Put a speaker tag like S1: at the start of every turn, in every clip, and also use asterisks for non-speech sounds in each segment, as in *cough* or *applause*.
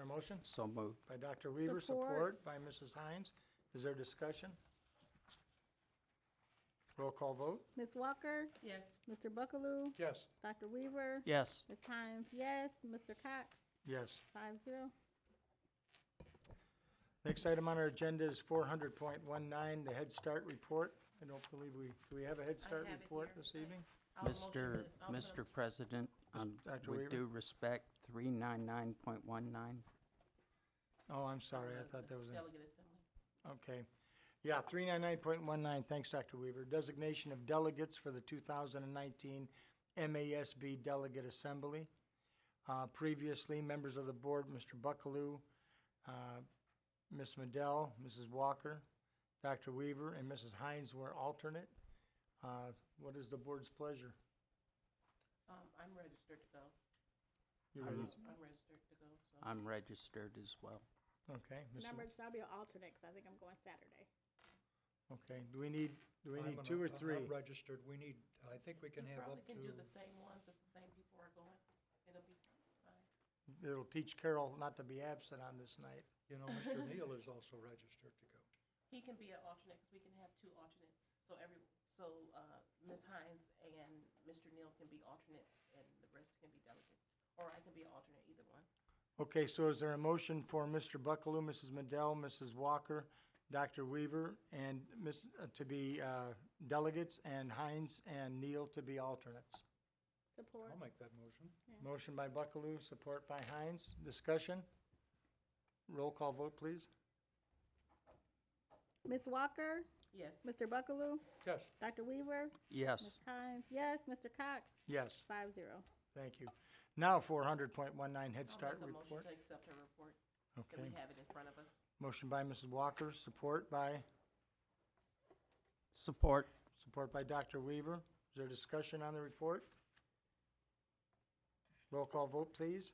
S1: a motion?
S2: So moved.
S1: By Dr. Weaver,
S3: Support.
S1: support by Mrs. Hines. Is there discussion? Roll call vote?
S3: Ms. Walker,
S4: Yes.
S3: Mr. Buckaloo,
S1: Yes.
S3: Dr. Weaver.
S2: Yes.
S3: Ms. Hines, yes. Mr. Cox,
S1: Yes.
S3: five zero.
S1: Next item on our agenda is four hundred point one nine, the Head Start report. I don't believe we, do we have a Head Start
S4: have it
S1: report
S4: here,
S1: this
S4: right.
S1: evening?
S4: I'll motion
S2: Mr.
S4: to- I'll put
S2: Mr. President, um,
S1: Dr. Weaver?
S2: with due respect, 399.19.
S1: Oh, I'm
S4: a-
S1: sorry, I thought that was, in-
S4: Delegate Assembly.
S1: okay. Yeah, three nine nine point one nine, thanks, Dr. Weaver. Designation of delegates for the two thousand and nineteen MASB Delegate Assembly. Uh, previously, members of the board, Mr. Buckaloo, uh, Ms. Madell, Mrs. Walker, Dr. Weaver, and Mrs. Hines were alternate. Uh, what is the board's pleasure?
S4: Um, I'm registered to go.
S1: You
S4: So,
S1: ready?
S4: I'm registered to go, so.
S2: I'm registered as well.
S1: Okay, Mrs.
S3: Number, I'll be an alternate because I think I'm going Saturday.
S1: Okay, do we need, do we
S5: I'm
S1: need
S5: gonna-
S1: two or
S5: I'm not
S1: three?
S5: registered, we need, I think we can
S4: You
S5: have
S4: probably
S5: up
S4: can do the
S5: to,
S4: same ones if the same people are going. It'll be fine.
S1: It'll teach Carol not to be absent on this night.
S5: you know, Mr. Neal is also registered to go.
S4: He can be an alternate because we can have two alternates. So every, so, uh, Ms. Hines and Mr. Neal can be alternates and the rest can be delegates. Or I can be an alternate, either one.
S1: Okay, so is there a motion for Mr. Buckaloo, Mrs. Madell, Mrs. Walker, Dr. Weaver, and Ms., uh, to be uh, delegates, and Hines and Neal to be alternates?
S3: Support.
S5: I'll make that motion.
S1: Motion by Buckaloo, support by Hines. Discussion? Roll call vote, please.
S3: Ms. Walker,
S4: Yes.
S3: Mr. Buckaloo,
S5: Yes,
S3: Dr. Weaver, Ms.
S2: Yes.
S3: Hines, yes. Mr. Cox,
S1: Yes,
S3: five zero.
S1: thank you. Now, 400.19 Head Start
S4: I'll make a motion
S1: report.
S4: to accept her report, that we
S1: Okay.
S4: have it in front of us.
S1: Motion by Mrs. Walker, support by?
S2: Support.
S1: Support by Dr. Weaver. Is there discussion on the report? Roll call vote, please.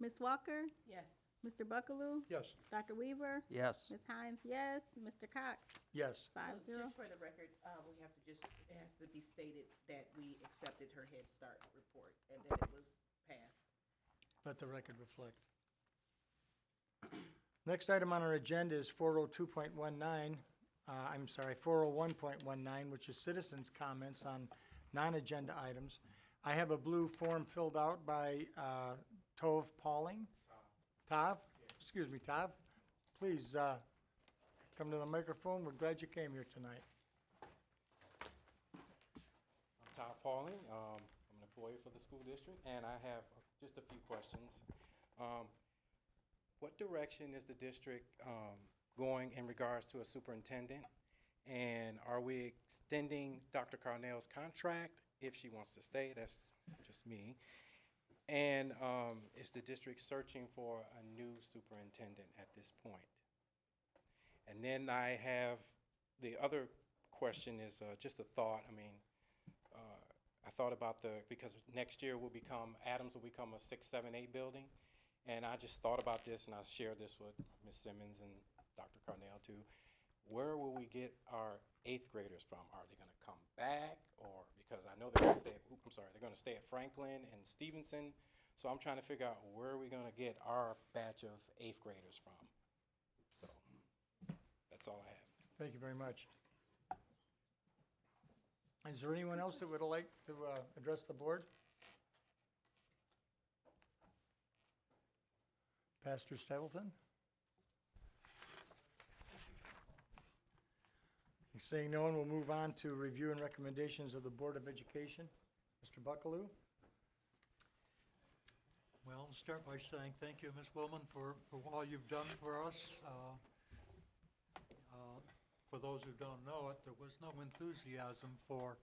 S3: Ms. Walker,
S4: Yes.
S3: Mr. Buckaloo,
S5: yes,
S3: Dr. Weaver,
S2: Yes.
S3: Ms. Hines, yes. Mr. Cox,
S1: Yes.
S4: So
S3: five zero.
S4: Just for the record, uh, we have to just, it has to be stated that we accepted her Head Start report and that it was passed.
S1: Let the record reflect. *clears throat* Next item on our agenda is 402.19, uh, I'm sorry, 401.19, which is citizens' comments on non-agenda items. I have a blue form filled out by uh, Tove Pauling. Tov, excuse me, Tov, please uh, come to the microphone. We're glad you came here tonight.
S6: I'm Todd Pauling. Um, I'm an employee for the school district, and I have just a few questions. Um, what direction is the district um, going in regards to a superintendent? And are we extending Dr. Carnell's contract if she wants to stay? That's just me. And um, is the district searching for a new superintendent at this point? And then I have the other question is uh, just a thought. I mean, uh, I thought about the, because next year will become, Adams will become a six, seven, eight building. And I just thought about this and I shared this with Ms. Simmons and Dr. Carnell too. Where will we get our eighth graders from? Are they gonna come back or, because I know they're gonna stay, at- oop, I'm sorry, they're gonna stay at Franklin and Stevenson. So I'm trying to figure out where are we gonna get our batch of eighth graders from? So, that's all I have.
S1: Thank you very much. Is there anyone else that would like to uh, address the board? Pastor Stapleton? Seeing no one, we'll move on to review and recommendations of the Board of Education. Mr. Buckaloo?
S5: Well, I'll start by saying thank you, Ms. Willman, for, for all you've done for us. Uh, uh, For those who don't know it, there was no enthusiasm for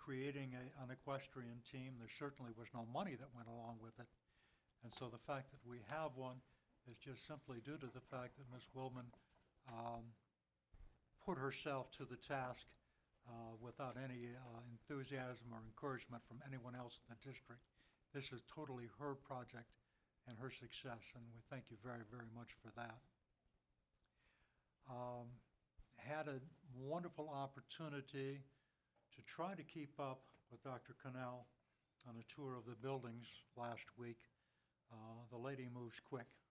S5: creating a, an equestrian team. There certainly was no money that went along with it. And so the fact that we have one is just simply due to the fact that Ms. Willman um, put herself to the task uh, without any uh, enthusiasm or encouragement from anyone else in the district. This is totally her project and her success, and we thank you very, very much for that. Um, Had a wonderful opportunity to try to keep up with Dr. Cannell on a tour of the buildings last week. Uh, The lady moves quick.